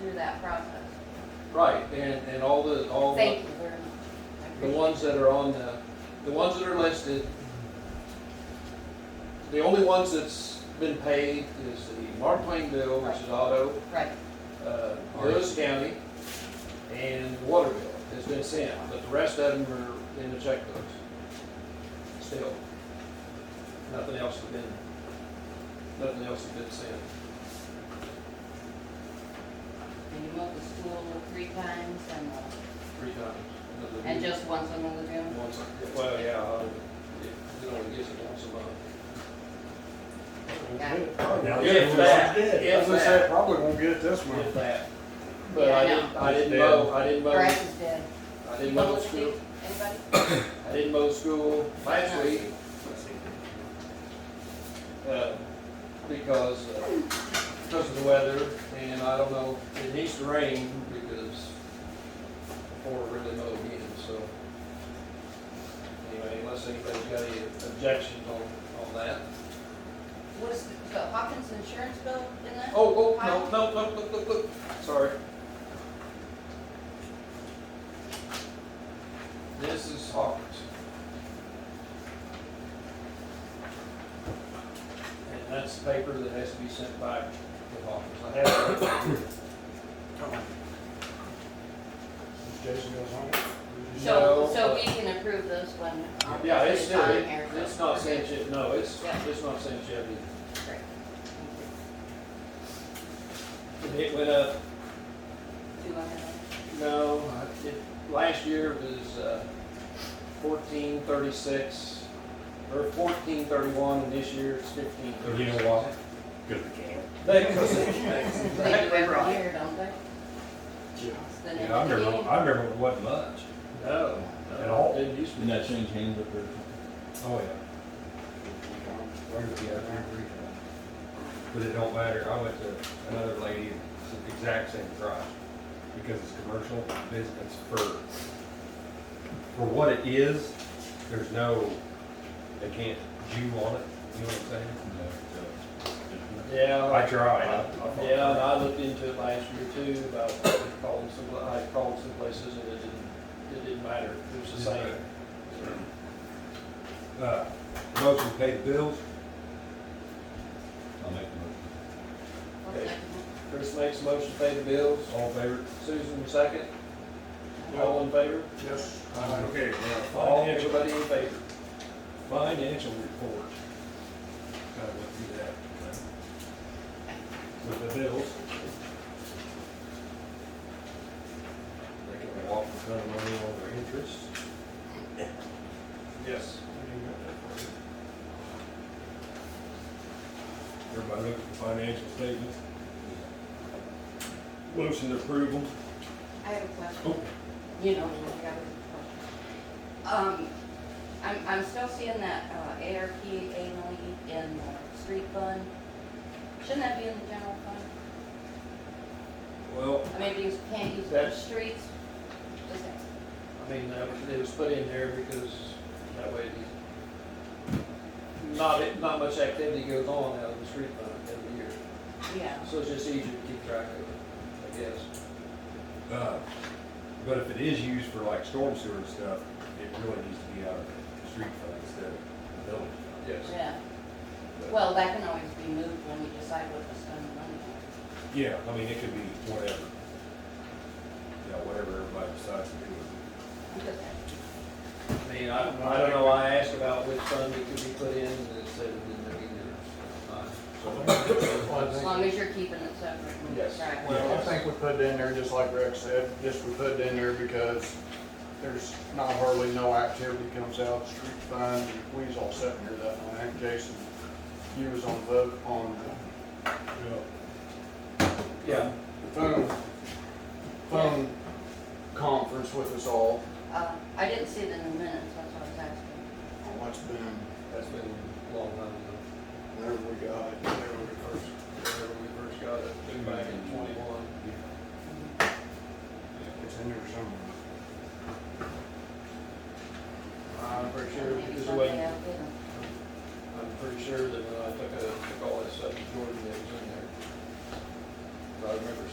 through that process. Right, and, and all the, all the, Thank you very much. I Oh, uh, the appreciate ones that are on the, the ones that are listed, the only ones that's been paid is the Mark Twain bill, which is auto, it. Right, uh, Lewis County, and the water bill has been sent, but the rest of them are in the checkbooks. Still, nothing else has been, nothing else has been sent. and you went to school three times and, uh, three times. and just once in the lagoon? Once, well, yeah, I- it, it only gets it once a month. Got it. Now, If that, if As I said, that, probably won't get it this one. if that. But I Yeah, I didn't, I know. didn't mow, I didn't mow, Grass is dead. I didn't mow the school, Anybody? I didn't mow the school last week, uh, because, uh, because of the weather, and I don't know, it needs to rain, because before it really mowed again, so. Anyway, unless anybody's got any objections on, on that. What is, the the Hawkins insurance bill in that? Oh, oh, no, no, look, look, look, look, sorry. This is Hawkins. And that's the paper that has to be sent back to Hawkins. I have it right here. Jason goes home. So, so no, but- we can approve this one. um, Yeah, it's, this time here, it- it's not okay. sent yet, no, it's, Yeah. it's not sent yet either. Great. And It went up, Thank you. Do I have no, I- it, last year was, uh, fourteen thirty-six, or fourteen thirty-one, and this year it's fifteen You thirty-six. know what? Good for Cam. a- They do Exactly every right. year, don't they? Yeah. It's the Yeah, I next remember, meeting. I remember it wasn't much. No. At all. Didn't used to. Didn't that change hands up there? Oh, yeah. Where did he have But it don't matter, I went to another lady, it's the exact same price. Because it's commercial business for, for what it is, there's no, they can't Jew on it, you know what I'm saying? Yeah, I tried. I- I I- thought- yeah, and I looked into it last year too, about calling some, I called some places and it didn't, it didn't matter, it was the same. Uh, motion to pay the bills? I'll make the motion. What's that? Chris makes a motion to pay the bills, All in favor? Susan second, all in favor? Yes. Okay. All, in favor? Everybody in favor? financial report. Kind of went through that. With the bills. They can walk in front of money on their interest. Yes. Everybody look at the financial statements. Motion to approve them. I have a question. Oh. You know, I got a question. Um, I'm, I'm still seeing that uh, ARP annually in the street fund. Shouldn't that be in the general fund? Well, I mean, you can't use it for the That's- streets. Just ask. I mean, that was, it was put in there because that way the- not, not much activity goes on out of the street fund every year. Yeah. So it's just easier to keep track of it, I guess. Uh, But if it is used for like storm sewer and stuff, it really needs to be out of the street fund instead of the village. fund. Yes. Yeah, But- well, that can always be moved when we decide what to spend the money on. Yeah, I mean, it could be whatever. Yeah, whatever everybody decides to do. Because I mean, I, I don't know, I asked about which fund it could be put in, and it said it didn't really As matter. long as you're keeping it separate. and Yes. track. Well, I think we put it in there, just like Rex said, just we put it in there because there's not hardly no activity comes out, the street fund, we was all sitting here that night, I think Jason, you was on vote on Yeah, the phone, phone conference with us all, Uh, I didn't see it in the minutes, that's what I was asking. on what's been, that's been a long time ago, whenever we got, it, whenever we first whenever we first got it, back in twenty-one. It's in there somewhere.